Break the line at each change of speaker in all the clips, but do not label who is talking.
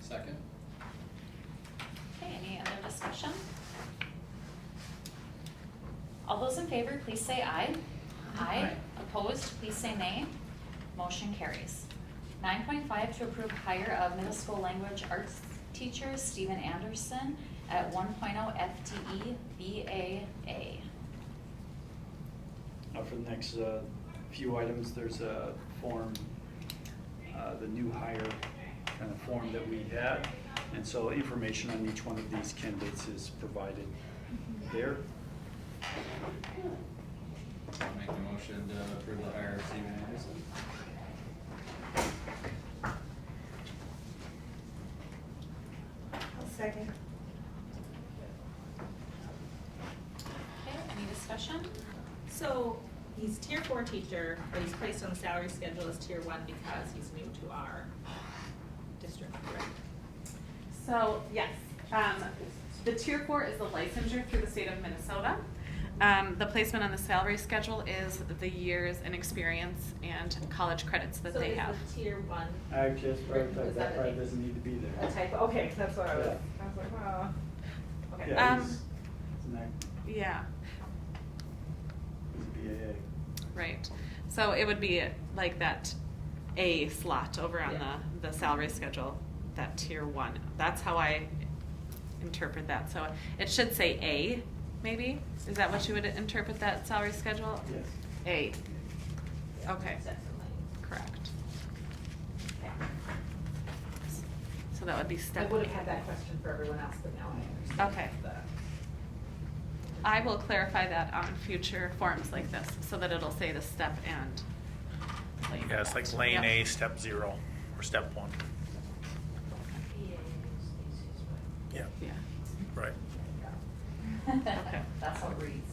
Second?
Okay, any other discussion? All those in favor, please say aye.
Aye.
Opposed, please say nay. Motion carries. Nine point five, to approve hire of middle school language arts teacher Stephen Anderson at one oh FTE BAA.
Uh, For the next uh, few items, there's a form, uh, the new hire kind of form that we had. And so information on each one of these candidates is provided there.
I'll make the motion to approve the hire of Steven Anderson.
I'll second.
Okay, any discussion?
So he's tier four teacher, but he's placed on the salary schedule as tier one because he's new to our district, correct?
So, yes, um, the tier four is the licensure through the state of Minnesota. Um, the placement on the salary schedule is the years and experience and college credits that they have.
So is the tier one,
I just
wrote that that probably
doesn't need to be
A typo, okay, 'cause that's what I was,
Yeah.
I was like, wow.
oh.
Okay.
Yeah, Um, he's- Yeah, right. So it would be like that A slot over on
Yeah.
the, the salary schedule, that tier one. That's how I interpret that. So it should say A, maybe? Is that what you would interpret that salary schedule?
Yes.
A, okay.
definitely.
Correct.
Okay.
So that would be
I
step.
would have
eight.
had that question for everyone else, but now I understand.
Okay.
the-
I will clarify that on future forms like this, so that it'll say the step and. lane.
Yeah, it's like lane
Yep.
A, step zero, or step one. Yeah,
Yeah,
right.
Okay.
That's how it reads.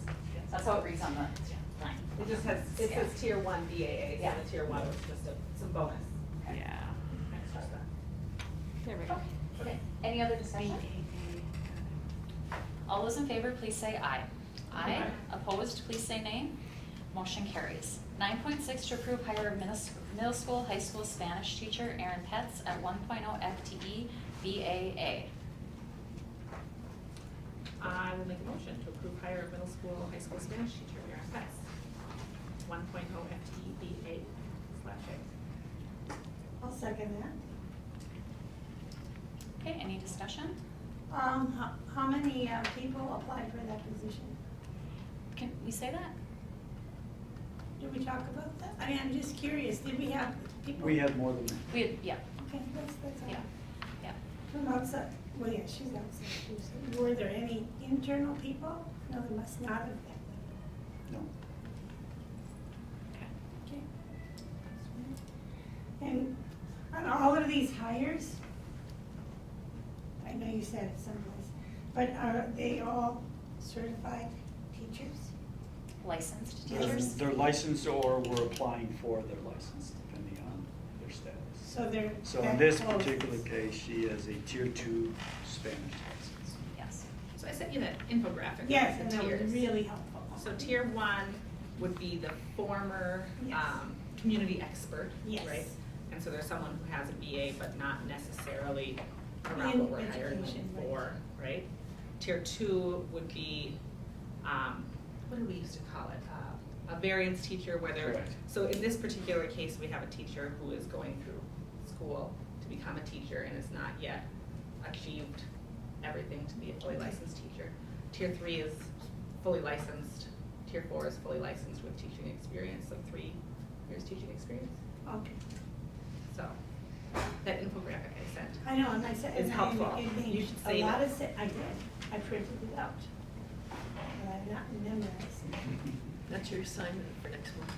That's how it reads on the line.
It just has, it
Yeah.
says tier one BAA, so
Yeah.
the tier one was just a, some bonus.
yeah.
extra stuff.
There we
Okay,
go.
okay. Any other discussion? All those in favor, please say aye.
Aye.
Opposed, please say nay. Motion carries. Nine point six, to approve hire of middle, sc- middle school, high school Spanish teacher Erin Pets at one oh FTE BAA.
I will make a motion to approve hire of middle school, high school Spanish teacher, Erin Fest. One oh FTE BA slash A.
I'll second that.
Okay, any discussion?
Um, how, how many uh, people applied for that position?
Can we say that?
Did we talk about that? I mean, I'm just curious, did we have people?
We had more than that.
We, yeah,
Okay, that's, that's all.
yeah, yeah.
From outside, well, yeah, she's outside, too, so were there any internal people? No, there must not have been.
No.
Okay.
Okay. And on all of these hires, I know you said it someplace, but are they all certified teachers?
Licensed
They're-
teachers?
They're licensed or we're applying for their license, depending on their status.
So they're.
So in
that
this
close.
particular case, she has a tier two Spanish license.
Yes.
So I sent you that infographic.
Yes,
with
and
the
that was
tiers.
really helpful.
So tier one would be the former,
Yes.
um, community expert,
Yes.
right? And so there's someone who has a BA but not necessarily around what
In
we're hiring them
education, right.
for, right? Tier two would be, um, what do we used to call it? Uh, A variance teacher where they're,
Correct.
so in this particular case, we have a teacher who is going through school to become a teacher and has not yet achieved everything to be a fully licensed teacher. Tier three is fully licensed, tier four is fully licensed with teaching experience, like three years teaching experience.
Okay,
So, that infographic I sent.
I know, and I said,
It's
and I,
helpful.
it made
You should
a
save
lot
it.
of sense, I did, I printed it out. But I'm not memorizing.
That's your assignment for next month.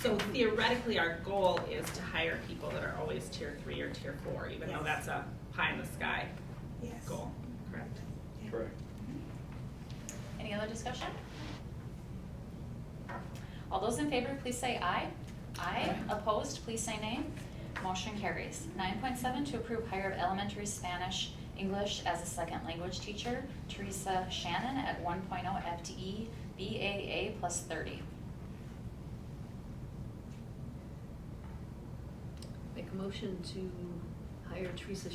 So theoretically, our goal is to hire people that are always tier three or tier four, even though
Yes.
that's a pie in the sky
yes.
goal, correct?
Yeah.
Correct.
Any other discussion? All those in favor, please say aye. Aye. Opposed, please say nay. Motion carries. Nine point seven, to approve hire of elementary Spanish, English as a second language teacher, Teresa Shannon at one oh FTE BAA plus thirty.
Make a motion to hire Teresa